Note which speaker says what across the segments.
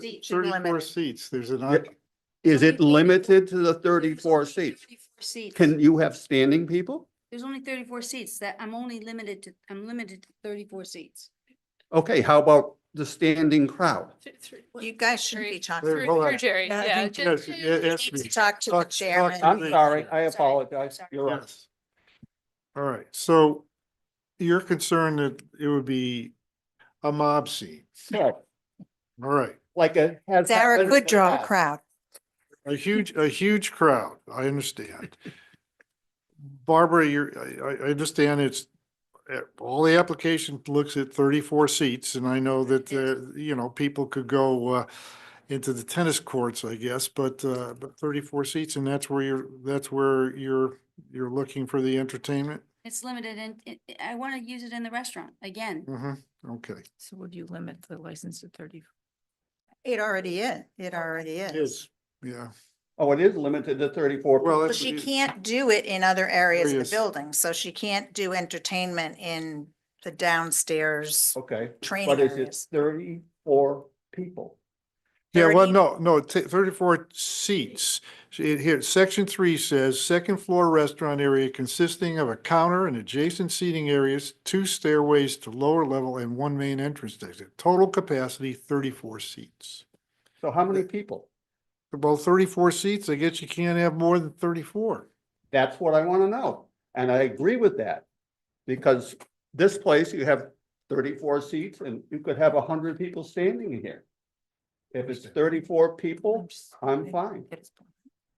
Speaker 1: Seat should be
Speaker 2: thirty-four
Speaker 1: limited.
Speaker 2: seats, there's an, oc-
Speaker 3: Is it
Speaker 1: Thirty-four.
Speaker 3: limited to the thirty-four
Speaker 1: There's only
Speaker 3: seats?
Speaker 1: 34 seats.
Speaker 3: Can you have standing people?
Speaker 1: There's only thirty-four seats that I'm only limited to, I'm limited to thirty-four seats.
Speaker 3: Okay, how about the standing crowd?
Speaker 4: You guys shouldn't be talking.
Speaker 2: There-
Speaker 5: Through
Speaker 2: hold
Speaker 5: through
Speaker 2: on.
Speaker 5: Jerry,
Speaker 4: Yeah, I
Speaker 5: yeah.
Speaker 4: think-
Speaker 5: ju-
Speaker 2: yes,
Speaker 5: ju-
Speaker 2: it
Speaker 4: You
Speaker 2: has
Speaker 4: need
Speaker 2: to
Speaker 4: to
Speaker 2: be,
Speaker 4: talk to the
Speaker 2: Talk- talk-
Speaker 4: chairman.
Speaker 3: Uh, I'm sorry, I apologize.
Speaker 1: Sorry.
Speaker 3: You're right.
Speaker 2: yes. All right, so you're concerned that it would be a mob scene.
Speaker 3: Yeah,
Speaker 2: All right,
Speaker 3: Like a. has
Speaker 4: Sarah
Speaker 3: happened in
Speaker 4: could
Speaker 3: the
Speaker 4: draw a
Speaker 3: past.
Speaker 4: crowd.
Speaker 2: a huge, a huge crowd, I understand. Barbara, you're, I, I, I understand it's, uh, all the application looks at thirty-four seats, and I know that, uh, you know, people could go, uh, into the tennis courts, I guess, but, uh, but thirty-four seats, and that's where you're, that's where you're, you're looking for the entertainment?
Speaker 1: It's limited and it- it- I want to use it in the restaurant again.
Speaker 2: hmm okay.
Speaker 6: So would you limit the license to thirty?
Speaker 4: It already is. It already is.
Speaker 2: Yeah,
Speaker 3: Oh, it is limited to thirty-four.
Speaker 2: well,
Speaker 4: But
Speaker 2: that's.
Speaker 4: she can't do it in other areas of the
Speaker 2: Areas.
Speaker 4: building, so she can't do entertainment in the
Speaker 7: Oh,
Speaker 4: downstairs
Speaker 3: Okay,
Speaker 4: training
Speaker 3: but is it
Speaker 4: areas.
Speaker 3: thirty-four people?
Speaker 2: Yeah, well,
Speaker 4: 30.
Speaker 2: no, no, t- thirty-four seats. So It here, section three says, second floor restaurant area consisting of a counter and adjacent seating areas, two stairways to lower level and one main entrance exit. Total capacity thirty-four seats.
Speaker 3: So how many people?
Speaker 2: Well, thirty-four seats, I guess you can't have more than thirty-four.
Speaker 3: That's what I want to know. And I agree with that. Because this place, you have thirty-four seats and you could have hundred people standing in here. If it's thirty-four people, I'm fine.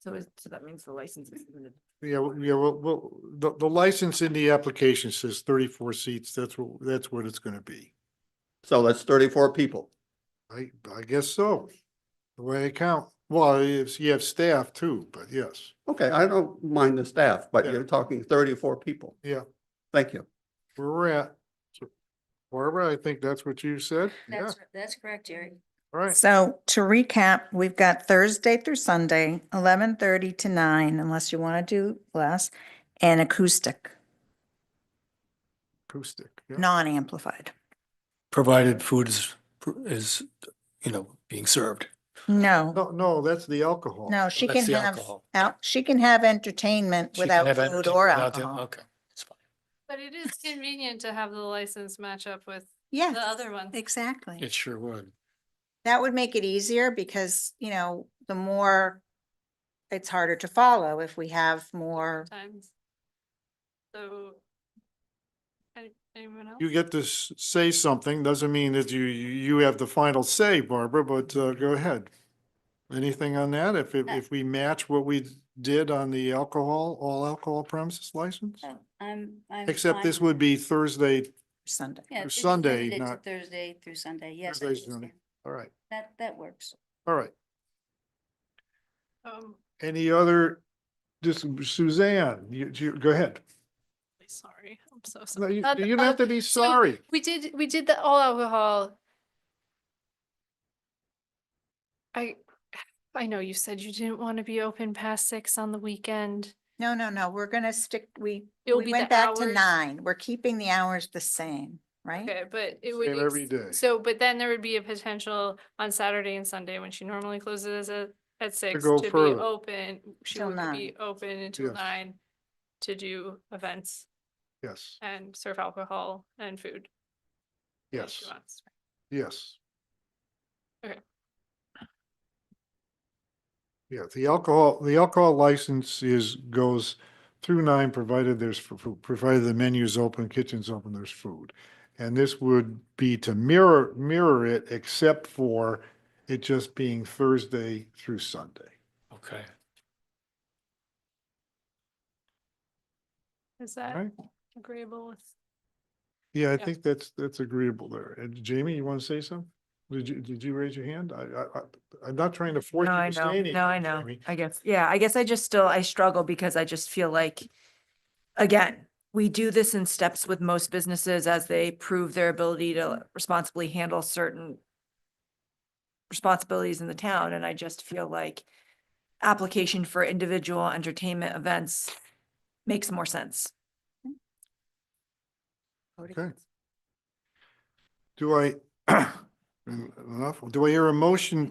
Speaker 6: So is, so that means the license is limited.
Speaker 2: Yeah, well, yeah, well, well, the, the license in the application says thirty-four seats. That's what, that's what it's gonna be.
Speaker 3: So that's thirty-four people.
Speaker 2: I, I guess so. The way I count. Well, if you have staff too, but yes.
Speaker 3: Okay, I don't mind the staff, but
Speaker 2: Yeah.
Speaker 3: you're talking thirty-four people.
Speaker 2: Yeah.
Speaker 3: Thank you.
Speaker 2: where we're at. So, Barbara, I think that's what you said. Yeah,
Speaker 1: That's, that's correct, Jerry.
Speaker 2: all right.
Speaker 4: So to recap, we've got Thursday through Sunday, eleven thirty to nine, unless you want to do less, and acoustic,
Speaker 2: Acoustic. yeah.
Speaker 4: non-amplified.
Speaker 7: provided food is, is, you know, being served.
Speaker 4: No,
Speaker 2: No, no, that's the alcohol.
Speaker 4: no, she
Speaker 7: Oh, That's
Speaker 4: can
Speaker 7: the
Speaker 4: have,
Speaker 7: alcohol.
Speaker 4: al- she can have entertainment
Speaker 7: She can
Speaker 4: without
Speaker 7: have it
Speaker 4: food or
Speaker 7: without the-
Speaker 4: alcohol.
Speaker 7: Okay, that's fine.
Speaker 5: But it is convenient to have the license match up with
Speaker 4: Yeah,
Speaker 5: the other one.
Speaker 4: exactly.
Speaker 7: It sure would.
Speaker 4: That would make it easier because, you know, the more it's harder to follow if we have more.
Speaker 5: Times. So. any- Anyone else?
Speaker 2: You get to s- say something, doesn't mean that you, you you have the final say, Barbara, but uh, go ahead. Anything on that? If, it- if we match what we did on the alcohol, all alcohol premises license?
Speaker 4: Oh.
Speaker 1: So I'm, I'm.
Speaker 2: Except
Speaker 1: fine
Speaker 2: this
Speaker 1: with
Speaker 2: would
Speaker 1: it.
Speaker 2: be Thursday,
Speaker 4: Sunday.
Speaker 1: Yeah, this is
Speaker 2: Sunday,
Speaker 1: limited to
Speaker 2: not-
Speaker 1: Thursday through Sunday, yes. I
Speaker 2: Thursday, Sunday.
Speaker 1: understand.
Speaker 2: all right,
Speaker 1: That, that works.
Speaker 2: all right.
Speaker 5: Um,
Speaker 2: Any other, just Suzanne, you, you, go ahead.
Speaker 5: sorry, I'm so
Speaker 2: No,
Speaker 5: sorry.
Speaker 2: You
Speaker 5: Uh,
Speaker 2: you don't
Speaker 5: uh,
Speaker 2: have to be
Speaker 5: so
Speaker 2: sorry.
Speaker 5: We did, we did the all alcohol. I, I know you said you didn't want to be open past six on the weekend.
Speaker 4: No, no, no, we're gonna stick, we,
Speaker 5: It'll
Speaker 4: we
Speaker 5: be
Speaker 4: went
Speaker 5: the
Speaker 4: back to
Speaker 5: hours.
Speaker 4: nine. We're keeping the hours the same, right?
Speaker 5: Okay, but it would.
Speaker 2: Same every
Speaker 5: ex-
Speaker 2: day.
Speaker 5: So, but then there would be a potential on Saturday and Sunday when she normally closes at, at six
Speaker 2: go
Speaker 5: to be
Speaker 2: further.
Speaker 5: open. She
Speaker 4: Till
Speaker 5: would be
Speaker 4: nine.
Speaker 5: open until
Speaker 2: Yes.
Speaker 5: nine to do events
Speaker 2: Yes,
Speaker 5: and serve alcohol and food. if
Speaker 2: yes,
Speaker 5: she wants.
Speaker 2: yes.
Speaker 5: Okay.
Speaker 2: Yeah, the alcohol, the alcohol license is, goes through nine, provided there's, fu- fu- provided the menu's open, kitchen's open, there's food. And this would be to mirror, mirror it, except for it just being Thursday through Sunday.
Speaker 7: Okay.
Speaker 5: Is
Speaker 2: All
Speaker 5: that
Speaker 2: right?
Speaker 5: agreeable with?
Speaker 2: Yeah, I
Speaker 5: Yeah.
Speaker 2: think that's, that's agreeable there. And Jamie, you want to say something? Did you, did you raise your hand? I, I, I- I'm not trying to force
Speaker 6: No,
Speaker 2: you
Speaker 6: I
Speaker 2: to say
Speaker 6: know,
Speaker 2: anything.
Speaker 6: no, I know,
Speaker 2: Jamie.
Speaker 6: I guess, yeah, I guess I just still, I struggle because I just feel like, again, we do this in steps with most businesses as they prove their ability to responsibly handle certain responsibilities in the town, and I just feel like application for individual entertainment events makes more sense.
Speaker 2: Okay. Do I, enough, do I hear a motion